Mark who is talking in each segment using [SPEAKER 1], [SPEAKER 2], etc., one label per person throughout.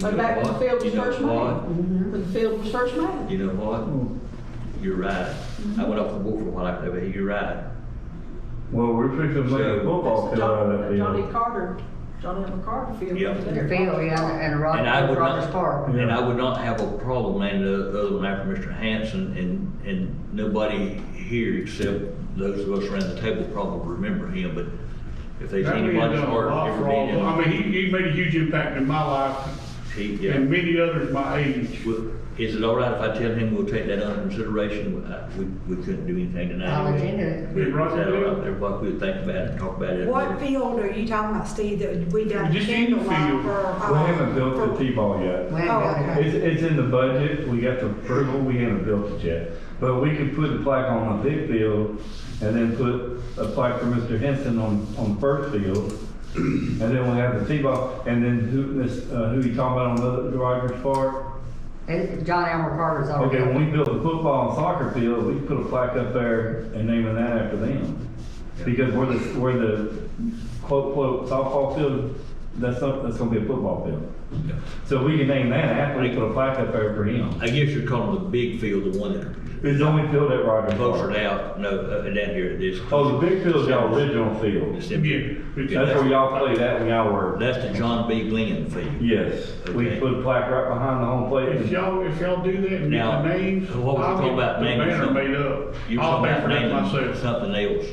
[SPEAKER 1] But back when the field was
[SPEAKER 2] You know
[SPEAKER 1] first
[SPEAKER 2] what?
[SPEAKER 1] made, when the field was first made.
[SPEAKER 2] You know what? You're right. I went off the board for a while after that, but you're right.
[SPEAKER 3] Well, we're fixing to make a football field out of that
[SPEAKER 1] Johnny- Johnny
[SPEAKER 3] field.
[SPEAKER 1] Carter, Johnny M. Carter Field.
[SPEAKER 2] Yeah.
[SPEAKER 4] Their field, yeah, and Rod-
[SPEAKER 2] And I would
[SPEAKER 4] Rogers
[SPEAKER 2] not,
[SPEAKER 4] Park.
[SPEAKER 2] and I would not have a problem naming the other one after Mr. Hanson, and, and nobody here except those of us around the table probably remember him, but if there's
[SPEAKER 5] That man
[SPEAKER 2] anybody
[SPEAKER 5] done a
[SPEAKER 2] smart,
[SPEAKER 5] lot
[SPEAKER 2] ever
[SPEAKER 5] for
[SPEAKER 2] been
[SPEAKER 5] all of
[SPEAKER 2] in.
[SPEAKER 5] us. I mean, he, he made a huge impact in my life
[SPEAKER 2] he- yeah.
[SPEAKER 5] and many others my age.
[SPEAKER 2] Well, Is it all right if I tell him we'll take that under consideration? Uh, We, we couldn't do anything tonight.
[SPEAKER 4] I'll
[SPEAKER 2] anyway.
[SPEAKER 4] attend it.
[SPEAKER 2] We- Is that all right there, Buck? We'll think about it and talk about it.
[SPEAKER 6] What field are you talking about, Steve, that we done
[SPEAKER 5] Just any
[SPEAKER 6] candlelight
[SPEAKER 5] field.
[SPEAKER 6] for? uh,
[SPEAKER 3] We haven't
[SPEAKER 6] for-
[SPEAKER 3] built the T-ball yet.
[SPEAKER 4] We ain't
[SPEAKER 6] Oh,
[SPEAKER 4] got it.
[SPEAKER 3] It's, it's in the budget, we got the approval, we haven't built it yet. But we could put the plaque on the big field and then put a plaque for Mr. Henson on, on the first field. And then we'll have the T-ball, and then who, this, uh, who you talking about on the Rogers Park?
[SPEAKER 4] It- John Elmer Carter's already.
[SPEAKER 3] Okay, when we build a football and soccer field, we put a plaque up there and name it that after them. Because we're the, we're the quote, quote, softball field, that's not, that's gonna be a football field.
[SPEAKER 2] Yeah.
[SPEAKER 3] So we can name that after we put a plaque up there for him.
[SPEAKER 2] I guess you're calling the big field the one that's
[SPEAKER 3] It's the only field at Rogers
[SPEAKER 2] closer now,
[SPEAKER 3] Park.
[SPEAKER 2] no, uh, down here at this.
[SPEAKER 3] Oh, the big field's y'all original field.
[SPEAKER 2] It's
[SPEAKER 5] Yeah.
[SPEAKER 2] in here.
[SPEAKER 3] That's where y'all played at when y'all were.
[SPEAKER 2] That's the John B. Glenn field.
[SPEAKER 3] Yes, we
[SPEAKER 2] Okay.
[SPEAKER 3] put a plaque right behind the home plate.
[SPEAKER 5] If
[SPEAKER 3] and-
[SPEAKER 5] y'all, if y'all do that and get
[SPEAKER 2] Now,
[SPEAKER 5] the names.
[SPEAKER 2] what was
[SPEAKER 5] I'll
[SPEAKER 2] it called
[SPEAKER 5] get
[SPEAKER 2] about
[SPEAKER 5] the
[SPEAKER 2] naming
[SPEAKER 5] Banner
[SPEAKER 2] something?
[SPEAKER 5] made
[SPEAKER 2] You
[SPEAKER 5] up.
[SPEAKER 2] were talking
[SPEAKER 5] I'll
[SPEAKER 2] about
[SPEAKER 5] banner it
[SPEAKER 2] naming
[SPEAKER 5] myself.
[SPEAKER 2] something else.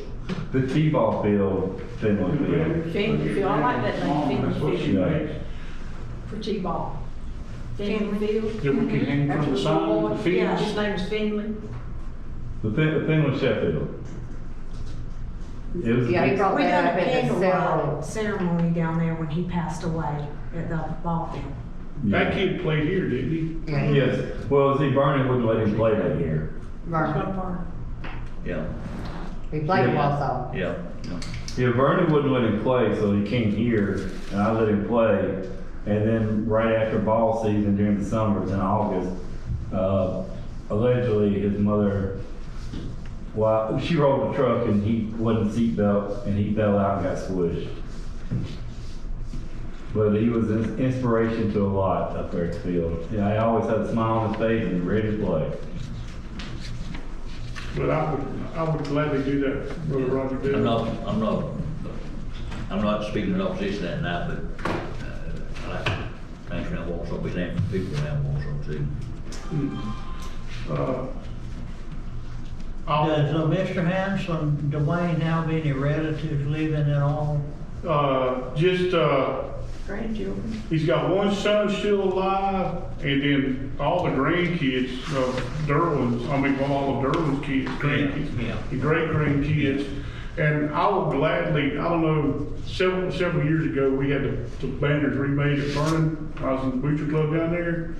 [SPEAKER 3] The T-ball field, Finland field.
[SPEAKER 1] Finley Field, I like that name,
[SPEAKER 5] That's
[SPEAKER 1] Finley
[SPEAKER 5] what she
[SPEAKER 1] Field,
[SPEAKER 5] makes.
[SPEAKER 1] for T-ball. Finley Field.
[SPEAKER 5] Then we can hang from
[SPEAKER 1] After
[SPEAKER 5] the sign,
[SPEAKER 1] boy,
[SPEAKER 5] the
[SPEAKER 1] Yeah,
[SPEAKER 5] fence.
[SPEAKER 1] his name is Finley.
[SPEAKER 3] The Fin- the Finland Sheffield. It was a
[SPEAKER 4] Yeah, he
[SPEAKER 3] big-
[SPEAKER 4] brought
[SPEAKER 6] We done
[SPEAKER 4] that
[SPEAKER 6] a
[SPEAKER 4] up at the
[SPEAKER 6] candlelight
[SPEAKER 4] cell.
[SPEAKER 6] ceremony down there when he passed away at the ball field.
[SPEAKER 5] That kid played here, didn't he?
[SPEAKER 4] Yeah, he-
[SPEAKER 3] Yes, well, see, Barney wouldn't let him play that year.
[SPEAKER 4] Vernon.
[SPEAKER 2] Yeah,
[SPEAKER 4] We played
[SPEAKER 3] Yeah.
[SPEAKER 4] Wausau.
[SPEAKER 2] yeah. yeah.
[SPEAKER 3] Yeah, Vernon wouldn't let him play, so he came here, and I let him play. And then right after ball season during the summers in August, uh, allegedly his mother, well, she rolled the truck and he wasn't seatbelt, and he fell out and got squished. But he was an inspiration to a lot up there at the field. Yeah, he always had a smile on his face and ready to play.
[SPEAKER 5] But I would, I would gladly do that, Brother Roger did.
[SPEAKER 2] I'm not, I'm not, I'm not speaking in opposition that night, but uh, I like to think around Walsall, be named for people around Walsall too.
[SPEAKER 5] Uh, I'll,
[SPEAKER 1] um,
[SPEAKER 7] Does uh, Mr. Hanson, Dwayne have any relatives living at all?
[SPEAKER 5] uh, just, uh,
[SPEAKER 1] Grandchildren.
[SPEAKER 5] He's got one son still alive, and then all the grandkids of Derwin's, I mean, well, all of Derwin's kids, grandkids.
[SPEAKER 7] yeah.
[SPEAKER 5] The great grandkids. And I would gladly, I don't know, several, several years ago, we had the, the banners remade at Vernon. I was in the butcher club down there,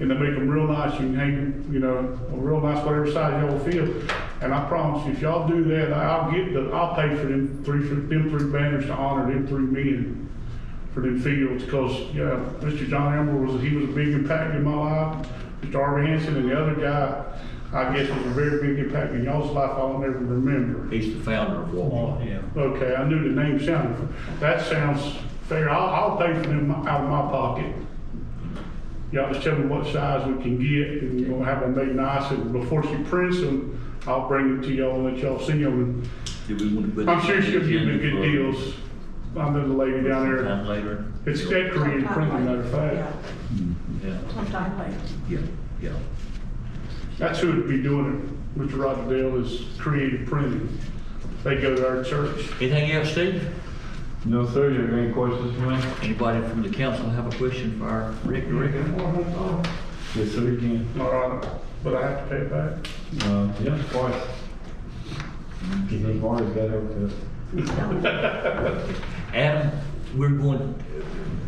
[SPEAKER 5] and they make them real nice. You can hang, 'em, you know, a real nice whatever size y'all feel. And I promise you, if y'all do that, I'll get the, I'll pay for them three, for them three banners to honor them three men for them fields, because, yeah, Mr. John Elmer was, he was a big impact in my life. Mr. Harvey Hanson and the other guy, I guess was a very big impact in y'all's life I'll never remember.
[SPEAKER 2] He's the founder of
[SPEAKER 5] Oh,
[SPEAKER 2] Walsall.
[SPEAKER 7] Yeah.
[SPEAKER 5] Okay, I knew the name sounded, that sounds fair. I'll, I'll pay for them out of my pocket. Y'all just tell me what size we can get, and we're gonna have them made nice, and before she prints them, I'll bring them to y'all and let y'all see them.
[SPEAKER 2] Do we want to put?
[SPEAKER 5] I'm sure
[SPEAKER 2] this on
[SPEAKER 5] she'll
[SPEAKER 2] the
[SPEAKER 5] give me
[SPEAKER 2] agenda
[SPEAKER 5] good
[SPEAKER 2] for-
[SPEAKER 5] deals. I know the lady down there,
[SPEAKER 2] Sometime later.
[SPEAKER 5] it's decorated printing, matter of fact.
[SPEAKER 2] Yeah,
[SPEAKER 1] Sometime later.
[SPEAKER 2] yeah, yeah.
[SPEAKER 5] That's who would be doing it, Mr. Roger Dale is Creative Printing. They go to our church.
[SPEAKER 2] Anything else, Steve?
[SPEAKER 3] No, sir, you have any questions for me?
[SPEAKER 2] Anybody from the council have a question for our Rick? Rick?
[SPEAKER 3] Yes, sir, you can.
[SPEAKER 5] All right, but I have to pay it back.
[SPEAKER 3] Uh, yeah, twice. Cause the bar is better with the-
[SPEAKER 2] Adam, we're going,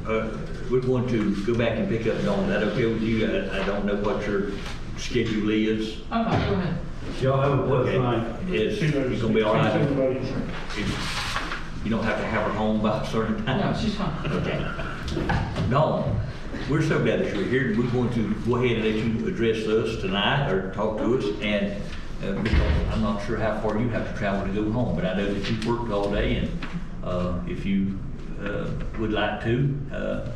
[SPEAKER 2] uh, we're going to go back and pick up Dawn. That okay with you? I, I don't know what your schedule is.
[SPEAKER 1] Oh, no, go ahead.
[SPEAKER 3] Y'all have a
[SPEAKER 2] Okay.
[SPEAKER 3] blessed night.
[SPEAKER 2] Is,
[SPEAKER 5] She knows-
[SPEAKER 2] you gonna be all right?
[SPEAKER 5] she's everybody's-
[SPEAKER 2] If You don't have to have her home by a certain time.
[SPEAKER 1] No, she's fine.
[SPEAKER 2] No, we're so glad that you're here. We're going to go ahead and let you address us tonight or talk to us. And uh, because I'm not sure how far you have to travel to go home, but I know that you've worked all day and uh, if you uh, would like to, uh,